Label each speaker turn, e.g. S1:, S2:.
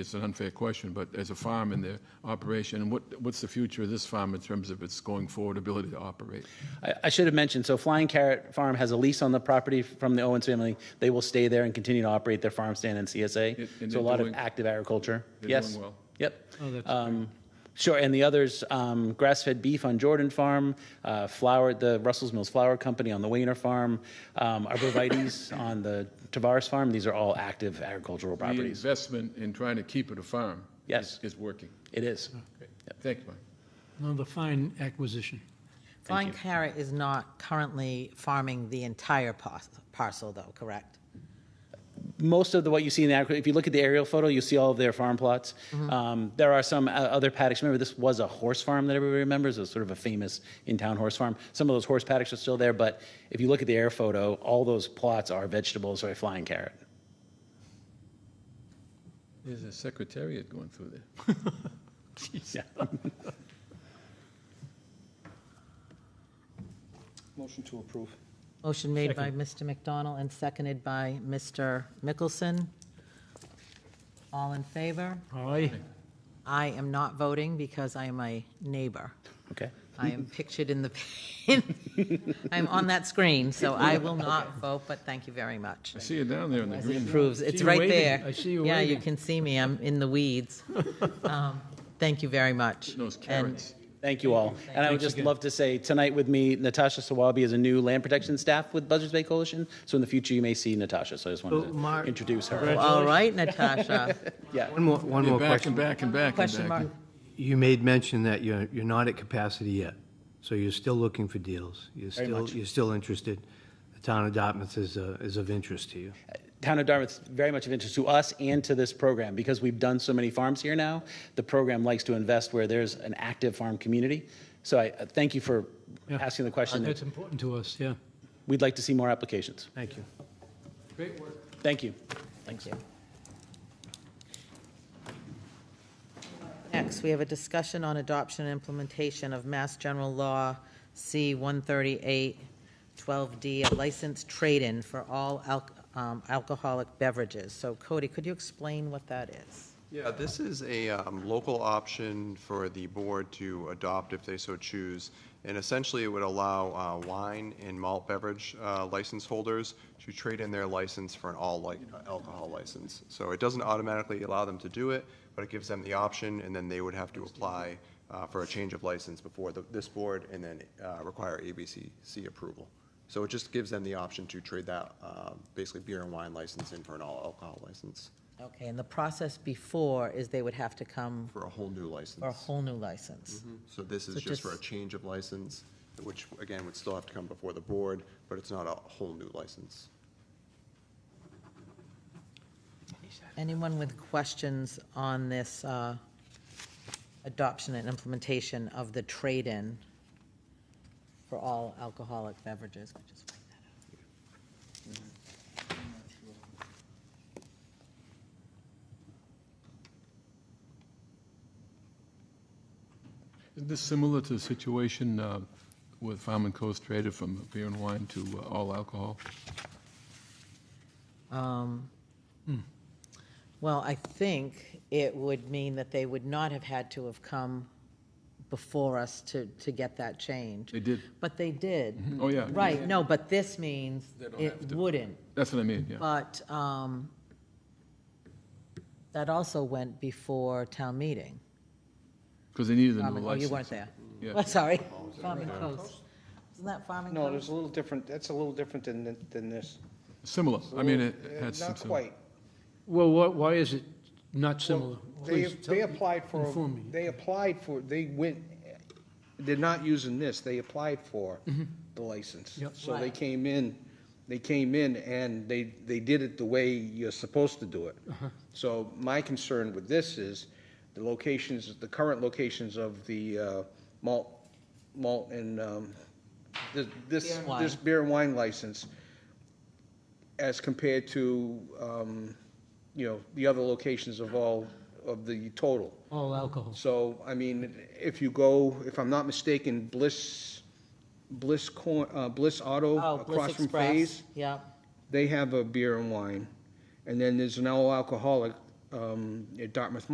S1: It's an unfair question, but as a farm in their operation, and what, what's the future of this farm in terms of its going forward ability to operate?
S2: I, I should have mentioned, so Flying Carrot Farm has a lease on the property from the Owens family. They will stay there and continue to operate their farm stand and
S1: And-
S2: CSA.
S1: and
S2: So a
S1: they're
S2: lot of
S1: doing-
S2: active agriculture.
S1: doing
S2: Yes.
S1: well.
S2: Yep.
S3: Oh, that's
S2: Um, Sure, and the others, um, grass-fed beef on Jordan Farm, uh, flour, the Russell's Mills Flour Company on the Wayner Farm, um, arborvitae's on the Tavares Farm. These are all active agricultural
S1: The
S2: properties.
S1: investment in trying to keep it a farm.
S2: Yes.
S1: is- Is working.
S2: It is.
S1: Thank you, Mike.
S3: Another fine acquisition.
S4: Flying Carrot is not currently farming the entire par- parcel, though, correct?
S2: most of the what you see in the agri- if you look at the aerial photo, you see all of their farm plots. Um, there are some uh, other paddocks. Remember, this was a horse farm that everybody remembers. It was sort of a famous in-town horse farm. Some of those horse paddocks are still there, but if you look at the air photo, all those plots are vegetables or a flying carrot.
S1: There's a secretariat going through there.
S2: Yeah.
S5: Motion to approve.
S4: Motion made by Mr. McDonald and seconded by Mr. Mickelson. All in favor?
S3: Aye.
S4: I am not voting because I am a neighbor.
S2: Okay.
S4: I am pictured in the, I'm on that screen, so I will not vote, but thank you very much.
S1: I see you down there in the green.
S4: Proves,
S3: see
S4: it's
S3: you
S4: right
S3: waving.
S4: there.
S3: I see you
S4: Yeah, you
S3: waving.
S4: can see me, I'm in the weeds. Um, Thank you very much.
S1: Those
S4: And-
S1: carrots.
S2: Thank you all. And I would just love to say tonight with me, Natasha Sawabi is a new land protection staff with Buzzards Bay Coalition. So in the future, you may see Natasha. So I just wanted
S3: Oh,
S2: to
S3: Mark.
S2: introduce her.
S3: Congratulations.
S4: All right, Natasha.
S2: Yeah.
S6: One more, one
S1: You're
S6: more
S1: back and
S6: question.
S1: back and back
S4: Question
S1: and
S4: mark.
S1: back.
S6: You made mention that you're, you're not at capacity yet, so you're still looking for deals. You're still, you're still interested. The town of Dartmouth is, uh, is of interest to you.
S2: Town of Dartmouth's very much of interest to us and to this program because we've done so many farms here now. The program likes to invest where there's an active farm community. So I uh, thank you for
S3: Yeah.
S2: asking the
S6: Uh,
S2: question.
S3: That's important to us, yeah.
S2: We'd like to see more applications.
S6: Thank you.
S2: Thank you.
S4: Thank you. Next, we have a discussion on adoption and implementation of Mass General Law C 138 12D, a license trade-in for all alc- um, alcoholic beverages. So Cody, could you explain what that is?
S7: Yeah, Uh, this is a um, local option for the board to adopt if they so choose. And essentially, it would allow uh, wine and malt beverage uh, license holders to trade in their license for an all li- alcohol license. So it doesn't automatically allow them to do it, but it gives them the option, and then they would have to apply uh, for a change of license before the- this board and then uh, require ABCC approval. So it just gives them the option to trade that, uh, basically beer and wine license in for an all alcohol license,
S4: Okay, and the process before is they would have to come
S7: for a whole new license.
S4: for a whole new license.
S7: So this
S4: So
S7: is just for a
S4: just-
S7: change of license, which, again, would still have to come before the board, but it's not a whole new license.
S4: Anyone with questions on this uh, adoption and implementation of the trade-in for all alcoholic beverages? Could just wipe that
S1: Isn't this similar to the situation uh, with Farm and Coast traded from beer and wine to uh, all alcohol? Hmm.
S4: out. Um, Well, I think it would mean that they would not have had to have come before us to, to get that change.
S1: They did.
S4: But they did.
S1: Oh, yeah.
S4: Right, no, but this means
S1: don't have
S4: it
S1: to.
S4: wouldn't.
S1: That's what I mean, yeah.
S4: But um, that also went before town meeting.
S1: Because they needed a new
S4: Farming- Oh,
S1: license.
S4: you weren't there.
S1: Yeah.
S4: Well, sorry, Farming Coast. Isn't that Farming
S5: No, it's
S4: Coast?
S5: a little different, that's a little different than, than this.
S1: Similar. I mean, it
S5: Uh,
S1: had some.
S5: Not
S1: similar-
S5: quite.
S3: Well, what, why is it not similar?
S5: They,
S3: Please tell-
S5: they applied for,
S3: inform me.
S5: they applied for, they went, they're not using this, they applied for the license.
S3: Mm-hmm. Yep.
S5: So they
S4: Right.
S5: came in, they came in and they, they did it the way you're supposed to do it.
S3: Uh-huh.
S5: So my concern with this is the locations, the current locations of the uh, malt, malt and, um,
S4: Beer
S5: th- this,
S4: and wine.
S5: this beer and wine license as compared to, um, you know, the other locations of all, of the total.
S3: All alcohol.
S5: So, I mean, if you go, if I'm not mistaken, Bliss, Bliss Corn, uh, Bliss Auto
S4: Oh,
S5: across
S4: Bliss
S5: from
S4: Express.
S5: Phase,
S4: Yep.
S5: they have a beer and wine. And then there's an all alcoholic um, at Dartmouth